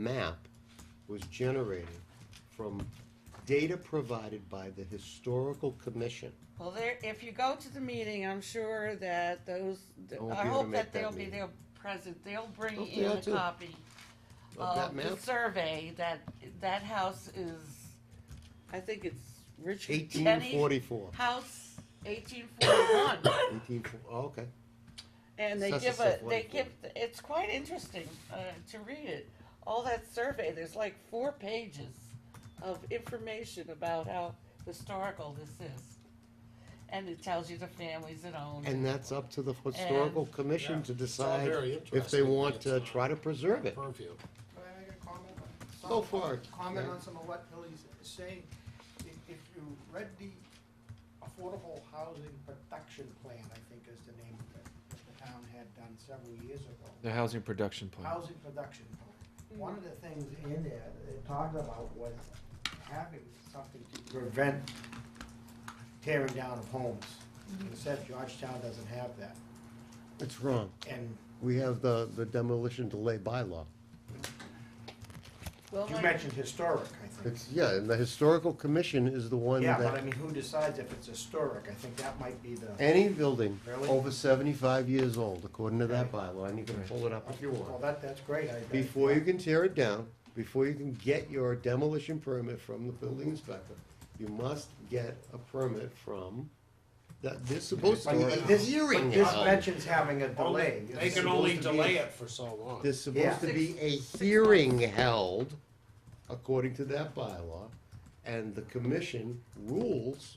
map was generated from data provided by the Historical Commission. Well, there, if you go to the meeting, I'm sure that those, I won't I be able to hope make that that they'll be meeting. there present, they'll bring Hope they in are a too. copy Of that of the map? survey that, that house is, I think it's Richard Eighteen Kenny forty-four. House, eighteen forty-one. Eighteen, fo- oh, okay. And they Census give a, of they Lincoln. give, it's quite interesting uh, to read it. All that survey, there's like four pages of information about how historical this is. And it tells you the families that own it. And that's up to the Historical Commission to Yeah, it's all decide very if they interesting, want but to it's not try to preserve it. Purview. Can I make a comment? on some- Go for it. Comment Yeah. on some of what Billy's saying. If, if you read the Affordable Housing Production Plan, I think is the name of it, that the town had done several years ago. The housing production plan. Housing production Mm-hmm. plan. One of the things in there that they talked about was having something to prevent tearing down of homes. Mm-hmm. Except Georgetown doesn't have that. It's wrong. And We have the, the demolition delay bylaw. Well, you my- mentioned historic, I think. It's, yeah, and the Historical Commission is the one Yeah, but I that, mean, who decides if it's historic? I think that might be the. any building Really? over seventy-five years old, according to that Okay. bylaw, and you can pull it up if you Well, want. that, that's great. I- I- Before you can tear it down, before you can get your demolition permit from the building inspector, you must get a permit from, that, they're supposed to But be a this, hearing. but this on it. mentions having a delay. Only- It's They can only supposed to be- delay it for so long. There's supposed to Yeah. be a hearing held, according to that bylaw, and the commission rules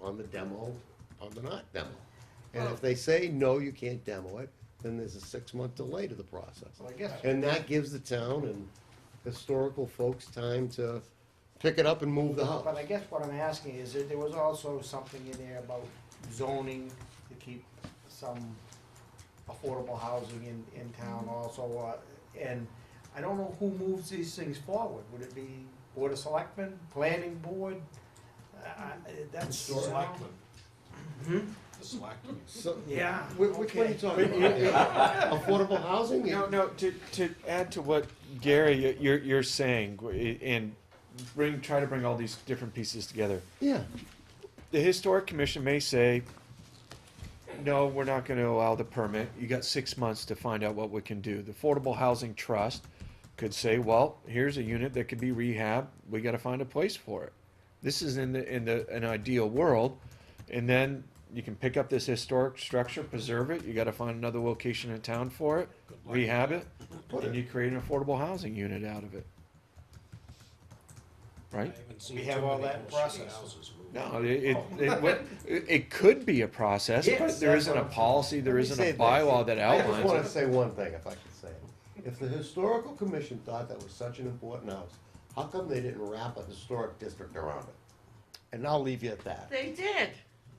on the demo, on the not demo. And if they say, no, you can't demo it, then there's a six-month delay to the process. Well, I guess- And that gives the town and historical folks time to pick it up and move the But I house. guess what I'm asking is that there was also something in there about zoning to keep some affordable housing in, in town also. uh, And I don't know who moves these things forward. Would it be Board of Selectmen, Planning Board? Uh, I- That's. The selectmen. The selectmen. So, Yeah. whi- which one are you okay. talking about? Affordable housing? No, no. To, to add to what Gary y- you're you're saying w- and bring try to bring all these different pieces together. Yeah, The historic commission may say, no, we're not going to allow the permit. You got six months to find out what we can do. The affordable housing trust could say, well, here's a unit that could be rehab. We got to find a place for it. This is in the in the an ideal world, and then you can pick up this historic structure, preserve it. You got to find another location in town for it, rehab it, Put and it- you create an affordable housing unit out of it. I Right? haven't seen We too have all many that bullshit process. houses moved. No, it, it, it, what- it, it could be a process, Yes, but there that's isn't a what I'm policy, there Let me isn't say a this. bylaw that I just wanna outlines it. say one thing, if I could say it. If the historical commission thought that was such an important house, how come they didn't wrap a historic district around it? And I'll leave you at that. They did.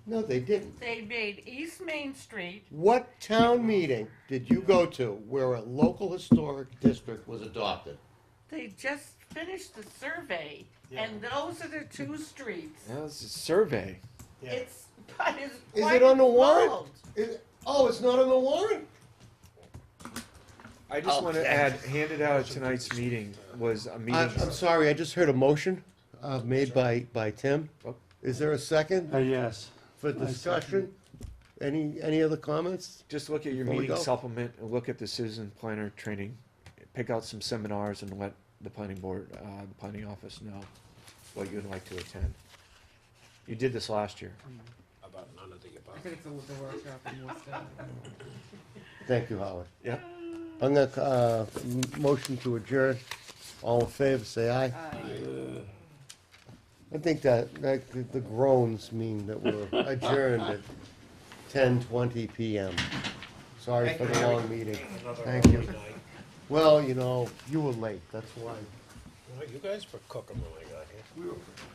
No, they didn't. They made East Main Street, What town meeting did you go to where a local historic district was adopted? they just finished the survey, and those are the two streets. Yeah, it's a survey. Yeah. It's, but it's Is quite it on the warrant? involved. Is, oh, it's not on the warrant? I just wanna Okay. add, handed out at tonight's meeting was a meeting. I'm, I'm sorry, I just heard a motion, uh, made by, by Tim. Oh. Is there a second Uh, yes. for second. discussion? Any, any other comments? Just look at your Before we meeting go. supplement, and look at the citizen planner training, pick out some seminars and let the planning board, uh, the planning office know what you'd like to attend. You did this last year. About none of the I above. could have filled the workshop and more stuff. Thank you, Howard. Yep. I'm gonna, uh, m- motion to adjourn. All in favor, say aye. I think that, that, the- the groans mean that we're adjourned at ten twenty PM. Sorry Thank for you, the Harry. long meeting. Another Thank lovely you. night. Well, you know, you were late, that's why. Well, You guys were cooking when I got here.